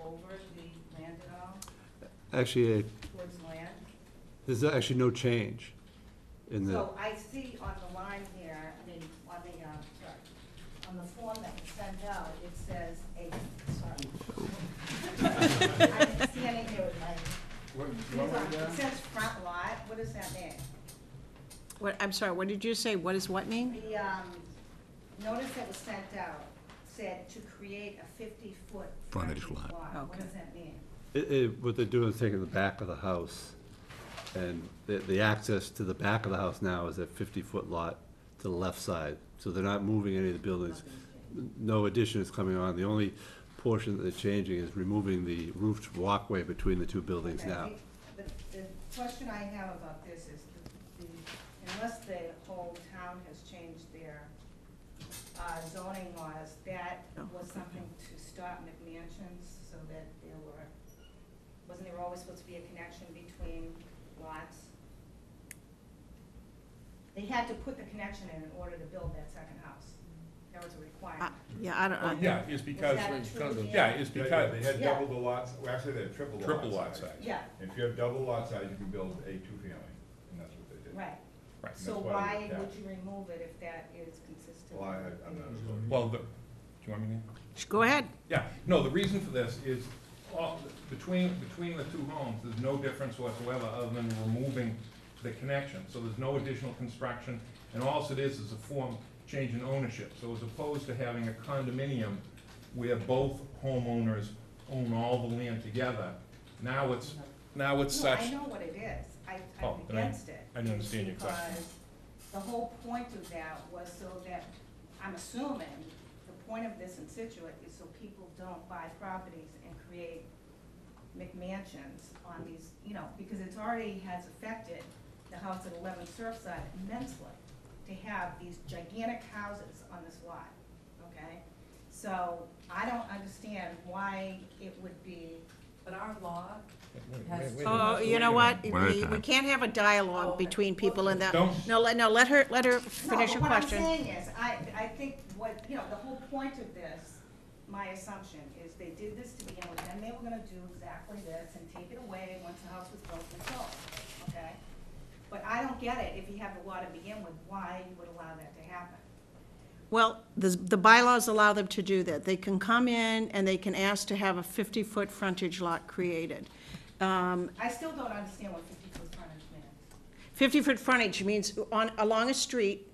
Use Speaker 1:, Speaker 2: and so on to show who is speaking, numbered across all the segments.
Speaker 1: over the land at all,
Speaker 2: Actually, uh,
Speaker 1: towards land?
Speaker 2: there's actually no change in the,
Speaker 1: So I see on the line here, I mean, on the, uh, sorry, on the form that was sent out, it says eight, sorry. I'm standing here with my,
Speaker 3: What,
Speaker 1: it says front lot, what does that mean?
Speaker 4: What, I'm sorry, what did you say? What is what mean?
Speaker 1: The, um, notice that was sent out said to create a fifty-foot
Speaker 5: Frontage
Speaker 1: frontage lot.
Speaker 5: lot.
Speaker 1: What
Speaker 4: Okay.
Speaker 1: does that mean?
Speaker 2: it, it, what they're doing is taking the back of the house, and the, the access to the back of the house now is that fifty-foot lot to the left side, so they're not moving any of the buildings. No addition is coming on, the only portion that they're changing is removing the roofed walkway between the two buildings
Speaker 1: Okay,
Speaker 2: now.
Speaker 1: The, the question I have about this is, the, the- unless the whole town has changed their uh, zoning laws, that
Speaker 4: No.
Speaker 1: was something to stop McMansions, so that there were, wasn't there always supposed to be a connection between lots? They had to put the connection in in order to build that second house. That was a
Speaker 4: I-
Speaker 1: requirement.
Speaker 4: Uh, Yeah, I don't,
Speaker 3: Well,
Speaker 4: I-
Speaker 3: Oh, yeah, it's because,
Speaker 1: that true?
Speaker 3: yeah, it's
Speaker 6: Yeah, yeah,
Speaker 3: because,
Speaker 6: they had
Speaker 1: Yeah.
Speaker 6: double the lots, well, actually, they had triple the lot size.
Speaker 3: Triple lot size.
Speaker 1: Yeah,
Speaker 6: If you have double lot size, you can build a two-family, and that's what they did.
Speaker 1: right.
Speaker 3: Right.
Speaker 1: So
Speaker 6: That's why
Speaker 1: why
Speaker 6: we- yeah.
Speaker 1: would you remove it if that is consistent?
Speaker 6: Well, I,
Speaker 1: with
Speaker 6: I'm not
Speaker 1: the-
Speaker 6: a zoning.
Speaker 3: well, the, do you want me to?
Speaker 4: sh- uh, go ahead.
Speaker 3: Yeah, no, the reason for this is, all, between, between the two homes, there's no difference whatsoever other than removing the connection, so there's no additional construction, and all it is is a form change in ownership, so as opposed to having a condominium where both homeowners own all the land together, now it's, now it's
Speaker 1: No,
Speaker 3: such.
Speaker 1: I know what it is, I,
Speaker 3: Oh,
Speaker 1: I'm
Speaker 3: then I-
Speaker 1: against it.
Speaker 3: I didn't understand your
Speaker 1: because
Speaker 3: question.
Speaker 1: The whole point of that was so that, I'm assuming, the point of this in Situate is so people don't buy properties and create McMansions on these, you know, because it's already has affected the house at eleven Surfside immensely to have these gigantic houses on this lot, okay? So I don't understand why it would be
Speaker 7: But our law
Speaker 3: Wait,
Speaker 7: has.
Speaker 3: wait, wait.
Speaker 4: Oh, you know what?
Speaker 5: One at a
Speaker 4: We we
Speaker 5: time.
Speaker 4: can't have a dialogue
Speaker 7: Okay.
Speaker 4: between people in that.
Speaker 3: Don't-
Speaker 4: No, let, no, let her, let her finish
Speaker 1: No,
Speaker 4: her
Speaker 1: but
Speaker 4: question.
Speaker 1: What I'm saying is, I, I think what, you know, the whole point of this, my assumption, is they did this to begin with, and they were gonna do exactly this and take it away once the house was built and sold, okay? But I don't get it, if you have the law to begin with, why you would allow that to happen.
Speaker 4: Well, the, the bylaws allow them to do that. They can come in and they can ask to have a 50-foot frontage lot created.
Speaker 1: I still don't understand what fifty foot frontage means.
Speaker 4: 50-foot frontage means on, along a street,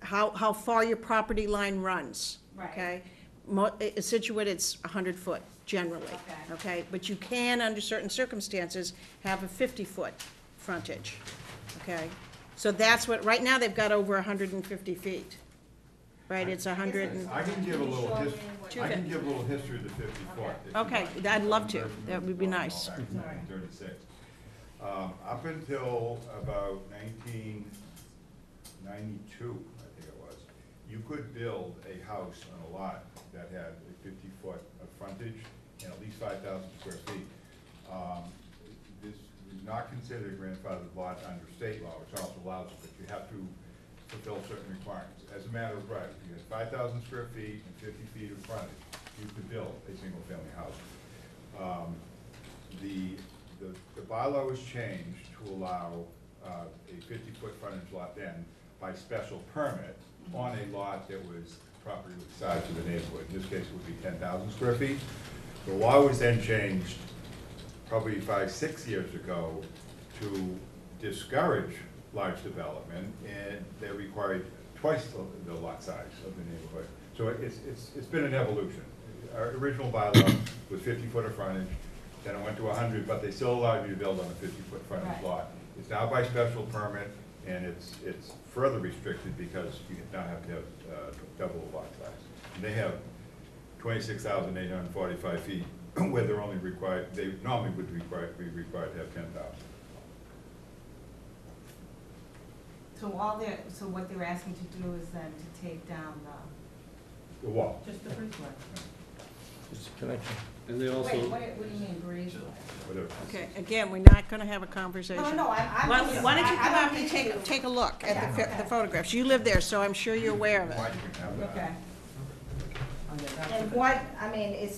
Speaker 4: how, how far your property line runs,
Speaker 1: Right.
Speaker 4: okay? Mo- i- Situate, it's 100 foot generally,
Speaker 1: Okay.
Speaker 4: okay? But you can, under certain circumstances, have a 50-foot frontage, okay? So that's what, right now, they've got over 150 feet, right? It's 100 and,
Speaker 6: I can give a little his,
Speaker 4: Two
Speaker 6: I can
Speaker 4: fif-
Speaker 6: give a little history of the fifty-four.
Speaker 4: Okay, I'd love to. That would be nice.
Speaker 6: Nineteen thirty-six. Um, up until about nineteen ninety-two, I think it was, you could build a house on a lot that had a fifty-foot of frontage and at least five thousand square feet. Um, This is not considered a grandfathered lot under state law, which also allows it, but you have to fulfill certain requirements. As a matter of right, if you had five thousand square feet and fifty feet of frontage, you could build a single-family house. Um, the, the- the bylaw was changed to allow uh, a fifty-foot frontage lot then by special permit on a lot that was property with size of the neighborhood. In this case, it would be ten thousand square feet. The law was then changed probably five, six years ago to discourage large development, and they required twice the- the lot size of the neighborhood. So it's, it's, it's been an evolution. Our original bylaw was fifty foot of frontage, then it went to hundred, but they still allowed you to build on a fifty foot frontage
Speaker 1: Right.
Speaker 6: lot. It's now by special permit, and it's, it's further restricted because you now have to have uh, double the lot size. And they have twenty-six thousand eight hundred and forty-five feet, where they're only required, they normally would require, be required to have ten thousand.
Speaker 1: So all they're, so what they're asking to do is then to take down the.
Speaker 6: The wall.
Speaker 1: Just the brick one.
Speaker 2: And they also.
Speaker 1: Wait, what, what do you mean, breeze?
Speaker 6: Whatever.
Speaker 4: okay, again, we're not going to have a conversation.
Speaker 1: No, no, I, I'm.
Speaker 4: Why why don't you
Speaker 1: I- I
Speaker 4: come
Speaker 1: don't
Speaker 4: up and
Speaker 1: need to-
Speaker 4: take, take a look
Speaker 1: Yeah,
Speaker 4: at the
Speaker 1: okay.
Speaker 4: pho- the photographs? You live there, so I'm sure you're aware of it.
Speaker 6: Why do we have that?
Speaker 1: Okay. And what, I mean, it's